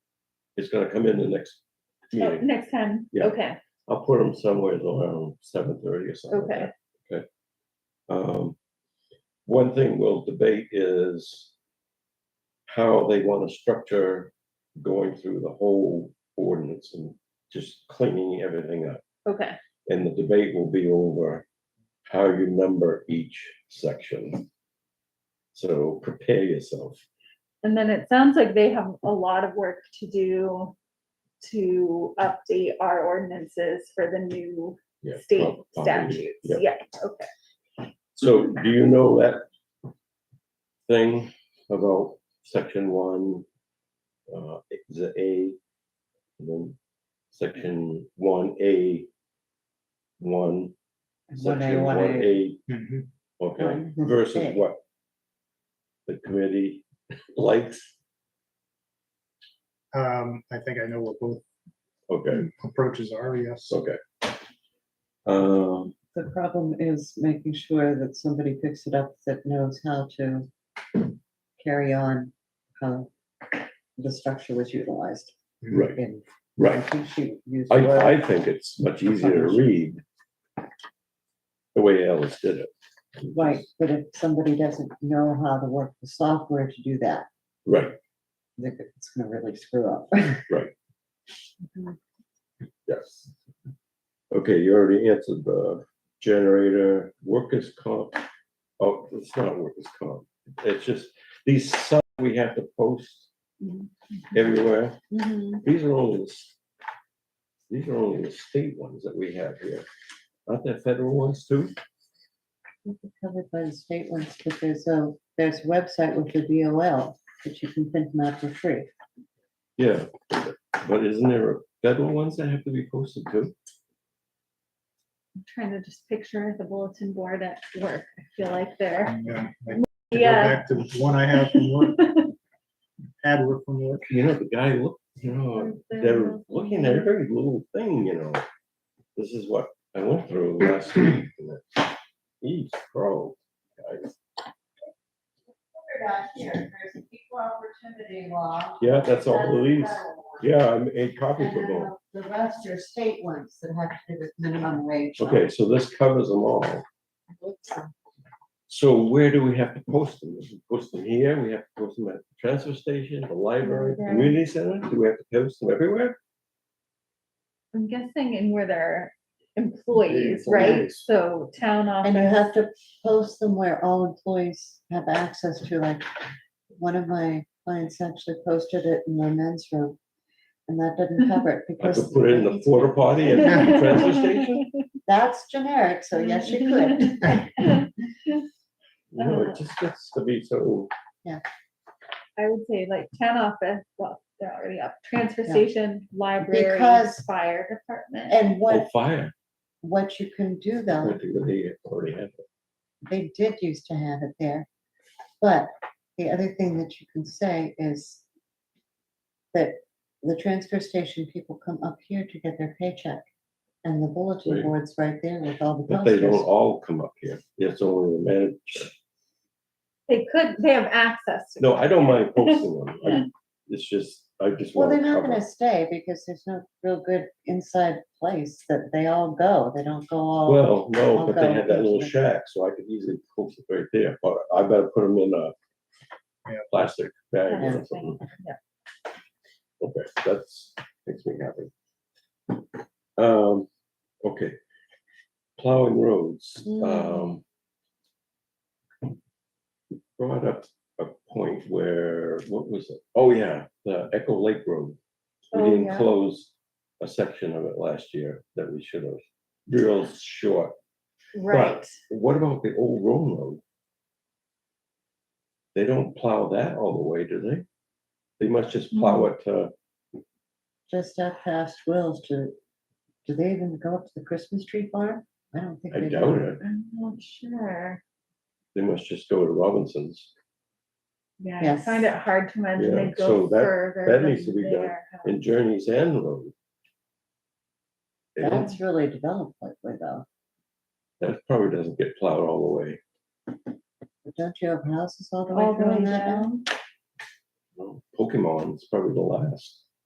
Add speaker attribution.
Speaker 1: It's gonna come in the next
Speaker 2: Oh,
Speaker 1: meeting.
Speaker 2: Next time,
Speaker 1: Yeah.
Speaker 2: okay,
Speaker 1: I'll put them somewhere around seven thirty or something. like
Speaker 2: Okay.
Speaker 1: that, Okay. Um, one thing we'll debate is how they want to structure going through the whole ordinance and just cleaning everything up.
Speaker 2: okay,
Speaker 1: And the debate will be over how you number each section. So prepare yourself.
Speaker 2: and then it sounds like they have a lot of work to do to update our ordinances for the new
Speaker 1: Yeah,
Speaker 2: state
Speaker 1: prob- probably,
Speaker 2: statutes,
Speaker 1: yeah.
Speaker 2: yeah, okay.
Speaker 1: So do you know that thing about section one? Uh, is it A? and Then section one A. One.
Speaker 3: One A,
Speaker 1: section
Speaker 3: one A. Mhm.
Speaker 1: A, Okay,
Speaker 3: One
Speaker 1: versus
Speaker 3: A.
Speaker 1: what? The committee likes,
Speaker 4: Um, I think I know what both
Speaker 1: okay,
Speaker 4: approaches are, yes.
Speaker 1: okay. Um,
Speaker 3: The problem is making sure that somebody picks it up that knows how to carry on how the structure was utilized.
Speaker 1: right,
Speaker 3: And I
Speaker 1: right.
Speaker 3: think she used.
Speaker 1: I,
Speaker 3: the word-
Speaker 1: I think it's much easier to read. The way Alice did it.
Speaker 3: Right, but if somebody doesn't know how to work the software to do that,
Speaker 1: Right.
Speaker 3: then it's gonna really screw up.
Speaker 1: Yes. Okay, you already answered the generator, workers' comp. Oh, it's not workers' comp. It's just these signs we have to post
Speaker 2: Mhm.
Speaker 1: everywhere.
Speaker 2: Mhm.
Speaker 1: These are only, the s- these are only the state ones that we have here. Aren't there federal ones too?
Speaker 3: Covered by the state ones, but there's a, there's a website with the DOL that you can print them out for free.
Speaker 1: Yeah, but isn't there federal ones that have to be posted too?
Speaker 2: I'm Trying to just picture the bulletin board at work, I feel like they're,
Speaker 4: And, um, I
Speaker 1: Mm-hmm.
Speaker 4: go
Speaker 2: yeah,
Speaker 4: Back to one I have from work. Had work from work.
Speaker 1: You know, the guy looked, you know, they're looking at every little thing, you know. This is what I went through last week. and it- Eesh, bro. guys.
Speaker 5: figured out here, there's an equal opportunity law.
Speaker 1: Yeah, that's all
Speaker 5: and
Speaker 1: it is.
Speaker 5: federal law.
Speaker 1: Yeah, I made copies
Speaker 5: And
Speaker 1: of
Speaker 5: then
Speaker 1: them.
Speaker 5: The the rest are state ones that have to do with minimum wage.
Speaker 1: Okay, so this covers them all. So where do we have to post them? We can Post them here, we have to post them at the transfer station, the library,
Speaker 2: Library.
Speaker 1: community center? Do we have to post them everywhere?
Speaker 2: I'm guessing in where they're employees, right?
Speaker 1: Employees.
Speaker 2: So town
Speaker 3: And you
Speaker 2: office,
Speaker 3: have to post them where all employees have access to, like, one of my clients actually posted it in the men's room. And that didn't cover it
Speaker 1: I
Speaker 3: because.
Speaker 1: could put it in the porta potty at the transfer station?
Speaker 3: That's generic, so yes, you could.
Speaker 1: You know, it just gets to be so,
Speaker 2: I would say like town office, well, they're already up, transfer
Speaker 3: Yeah.
Speaker 2: station, library,
Speaker 3: Because-
Speaker 2: fire department.
Speaker 3: And
Speaker 1: oh,
Speaker 3: what,
Speaker 1: fire.
Speaker 3: what you can do
Speaker 1: I
Speaker 3: though,
Speaker 1: think they already have it.
Speaker 3: they did used to have it there. But the other thing that you can say is that the transfer station people come up here to get their paycheck. And the bulletin
Speaker 1: Right.
Speaker 3: board's right there with all the
Speaker 1: But they don't
Speaker 3: posters.
Speaker 1: all come up here. It's only the manager.
Speaker 2: They could, they have access. to
Speaker 1: No,
Speaker 2: it.
Speaker 1: I don't mind posting them. I- It's just, I just
Speaker 3: Well,
Speaker 1: want
Speaker 3: they're
Speaker 1: to
Speaker 3: not gonna
Speaker 1: cover.
Speaker 3: stay because there's no real good inside place that they all go. They don't go all,
Speaker 1: Well, no,
Speaker 3: I'll
Speaker 1: but they
Speaker 3: go
Speaker 1: had that little
Speaker 3: personally.
Speaker 1: shack, so I could easily post it right there, but I better put them in a
Speaker 4: Yeah.
Speaker 1: plastic bag
Speaker 2: That's
Speaker 1: or
Speaker 2: the
Speaker 1: something.
Speaker 2: thing, yeah.
Speaker 1: Okay, that's, makes me happy. Um, okay. Plowing roads,
Speaker 3: Mm.
Speaker 1: um. you Brought up a point where, what was it? Oh, yeah, the Echo Lake Road. We
Speaker 2: Oh,
Speaker 1: didn't
Speaker 2: yeah.
Speaker 1: close a section of it last year that we should have, real short.
Speaker 2: Right,
Speaker 1: What about the old Rome Road? They don't plow that all the way, do they? They must just plow it, uh,
Speaker 3: just up past Will's to, do they even go up to the Christmas tree farm? I don't think
Speaker 1: I
Speaker 3: they
Speaker 1: doubt
Speaker 3: do.
Speaker 1: it.
Speaker 2: I'm not sure.
Speaker 1: They must just go to Robinson's.
Speaker 2: Yeah, I find it
Speaker 3: Yes.
Speaker 2: hard to imagine
Speaker 1: Yeah,
Speaker 2: they
Speaker 1: so
Speaker 2: go
Speaker 1: that-
Speaker 2: further.
Speaker 1: that needs
Speaker 2: than
Speaker 1: to be done.
Speaker 2: their house.
Speaker 1: in Journey's End Road. They don't-
Speaker 3: That's really developed lately though.
Speaker 1: that probably doesn't get plowed all the way.
Speaker 3: But Don't you have houses all the way
Speaker 2: All the
Speaker 3: through
Speaker 2: way
Speaker 3: on that now?
Speaker 2: down.
Speaker 1: Pokemon's probably the last.